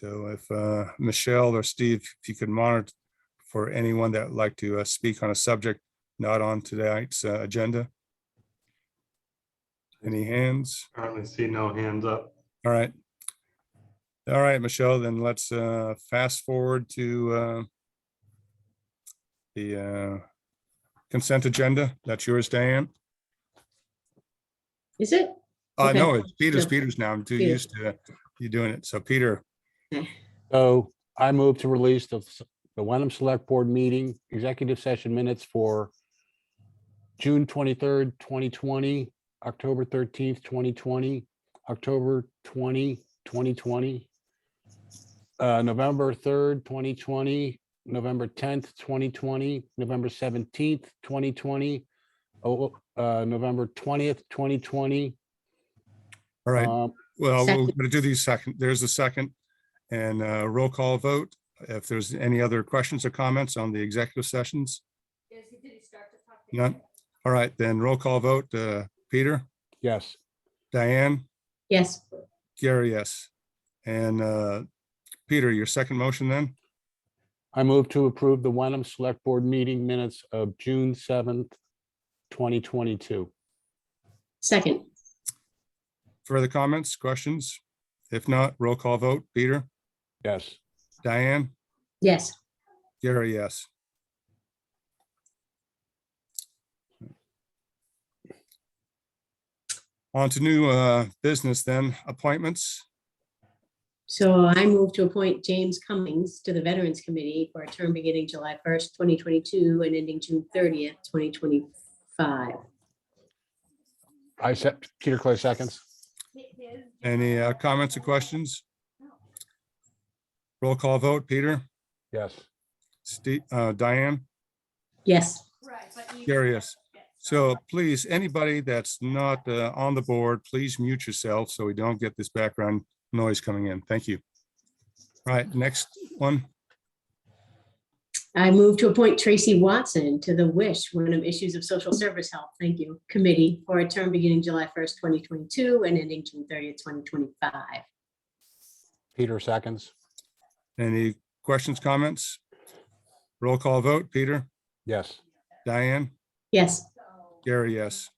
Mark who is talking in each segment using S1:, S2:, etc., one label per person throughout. S1: So if uh, Michelle or Steve, if you could monitor for anyone that would like to uh, speak on a subject not on tonight's uh, agenda. Any hands?
S2: Currently see no hands up.
S1: All right. All right, Michelle, then let's uh, fast forward to uh, the uh, consent agenda. That's yours, Diane.
S3: Is it?
S1: I
S3: Okay.
S1: know Uh, it's Peter's,
S3: Yeah.
S1: Peter's now. I'm too
S3: Peter.
S1: used to you doing it. So Peter,
S4: So I move to release the, the Wenham Select Board meeting, executive session minutes for June twenty-third, twenty twenty, October thirteenth, twenty twenty, October 20, 2020, uh, November third, twenty twenty, November tenth, twenty twenty, November seventeenth, twenty twenty, oh, uh, November twentieth, twenty twenty. um,
S1: all right. Well, we're
S3: Second.
S1: going to do these second, there's a second and uh roll call vote. If there's any other questions or comments on the executive sessions? None. All right, then roll call vote. Uh, Peter,
S4: Yes,
S1: Diane,
S3: Yes,
S1: Gary, yes. And uh, Peter, your second motion then?
S4: I move to approve the Wenham Select Board meeting minutes of June seventh, twenty twenty-two.
S3: second,
S1: Further comments, questions? If not, roll call vote. Peter,
S4: Yes,
S1: Diane,
S3: yes,
S1: Gary, yes. On to new uh, business then, appointments.
S3: so I move to appoint James Cummings to the Veterans Committee for a term beginning July first, twenty twenty-two and ending June thirtieth, twenty twenty-five.
S4: I said, Peter Clay seconds.
S1: Any uh, comments or questions? Roll call vote, Peter,
S4: Yes,
S1: Steve, uh, Diane?
S3: Yes,
S1: Curious. So please, anybody that's not uh, on the board, please mute yourself so we don't get this background noise coming in. Thank you. All right, next one.
S3: I move to appoint Tracy Watson to the Wish, Wyndham Issues of Social Service Health, thank you, Committee for a term beginning July first, twenty twenty-two and ending June thirtieth, twenty twenty-five.
S4: Peter seconds.
S1: Any questions, comments? Roll call vote, Peter,
S4: Yes,
S1: Diane,
S3: Yes,
S1: Gary, yes.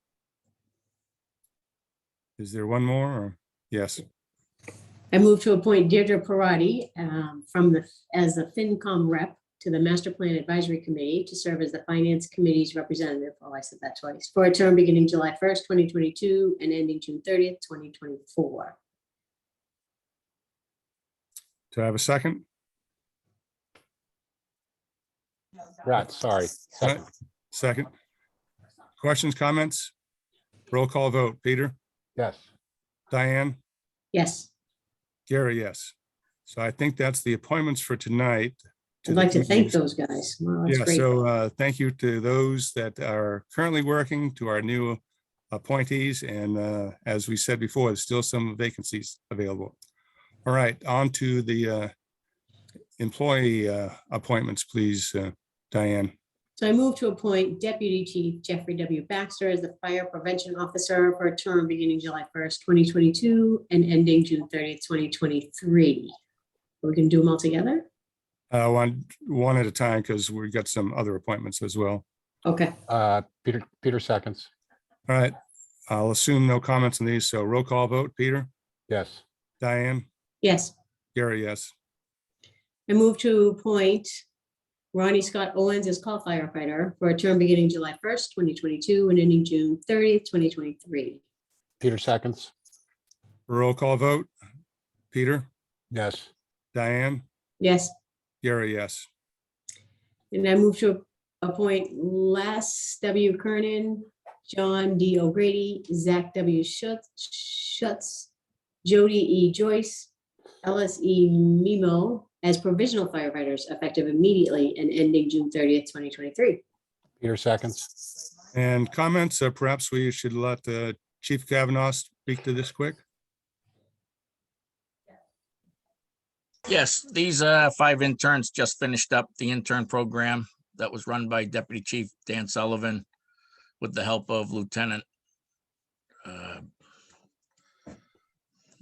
S1: Is there one more? or- Yes,
S3: I move to appoint Deirdre Parati um, from the, as the FinCom rep to the Master Plan Advisory Committee to serve as the Finance Committee's representative, oh, I said that twice, for a term beginning July 1st, 2022 and ending June 30th, 2024.
S1: do I have a second?
S4: right, sorry. Second.
S1: Second. Questions, comments? Roll call vote, Peter,
S4: Yes,
S1: Diane?
S3: Yes,
S1: Gary, yes. So I think that's the appointments for tonight.
S3: I'd like to thank
S1: those.
S3: those guys. Wow, that's
S1: Yeah,
S3: great.
S1: so uh, thank you to those that are currently working, to our new appointees, and uh, as we said before, there's still some vacancies available. All right, on to the uh, employee uh, appointments, please, uh, Diane.
S3: So I move to appoint Deputy Chief Jeffrey W. Baxter as the Fire Prevention Officer for a term beginning July 1st, 2022 and ending June 30th, 2023. We're going to do them all together?
S1: Uh, One, one at a time, because we've got some other appointments as well.
S3: Okay.
S4: uh, Peter, Peter seconds.
S1: All right, I'll assume no comments on these, so roll call vote, Peter,
S4: Yes,
S1: Diane,
S3: Yes,
S1: Gary, yes.
S3: I move to appoint Ronnie Scott Owens as call firefighter for a term beginning July first, twenty twenty-two and ending June thirtieth, twenty twenty-three.
S4: Peter seconds.
S1: Roll call vote. Peter,
S4: Yes,
S1: Diane,
S3: Yes,
S1: Gary, yes.
S3: and I move to appoint Les W. Kernan, John D. O'Grady, Zach W. Schutz, Schutz, Jody E. Joyce, Ellis E. Mimo as provisional firefighters effective immediately and ending June thirtieth, twenty twenty-three.
S4: Peter seconds.
S1: And comments, uh, perhaps we should let uh, Chief Kavanaugh speak to this quick.
S5: Yes, these uh, five interns just finished up the intern program that was run by Deputy Chief Dan Sullivan with the help of Lieutenant uh,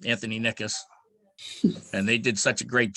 S5: Anthony Nickus. And they did such a great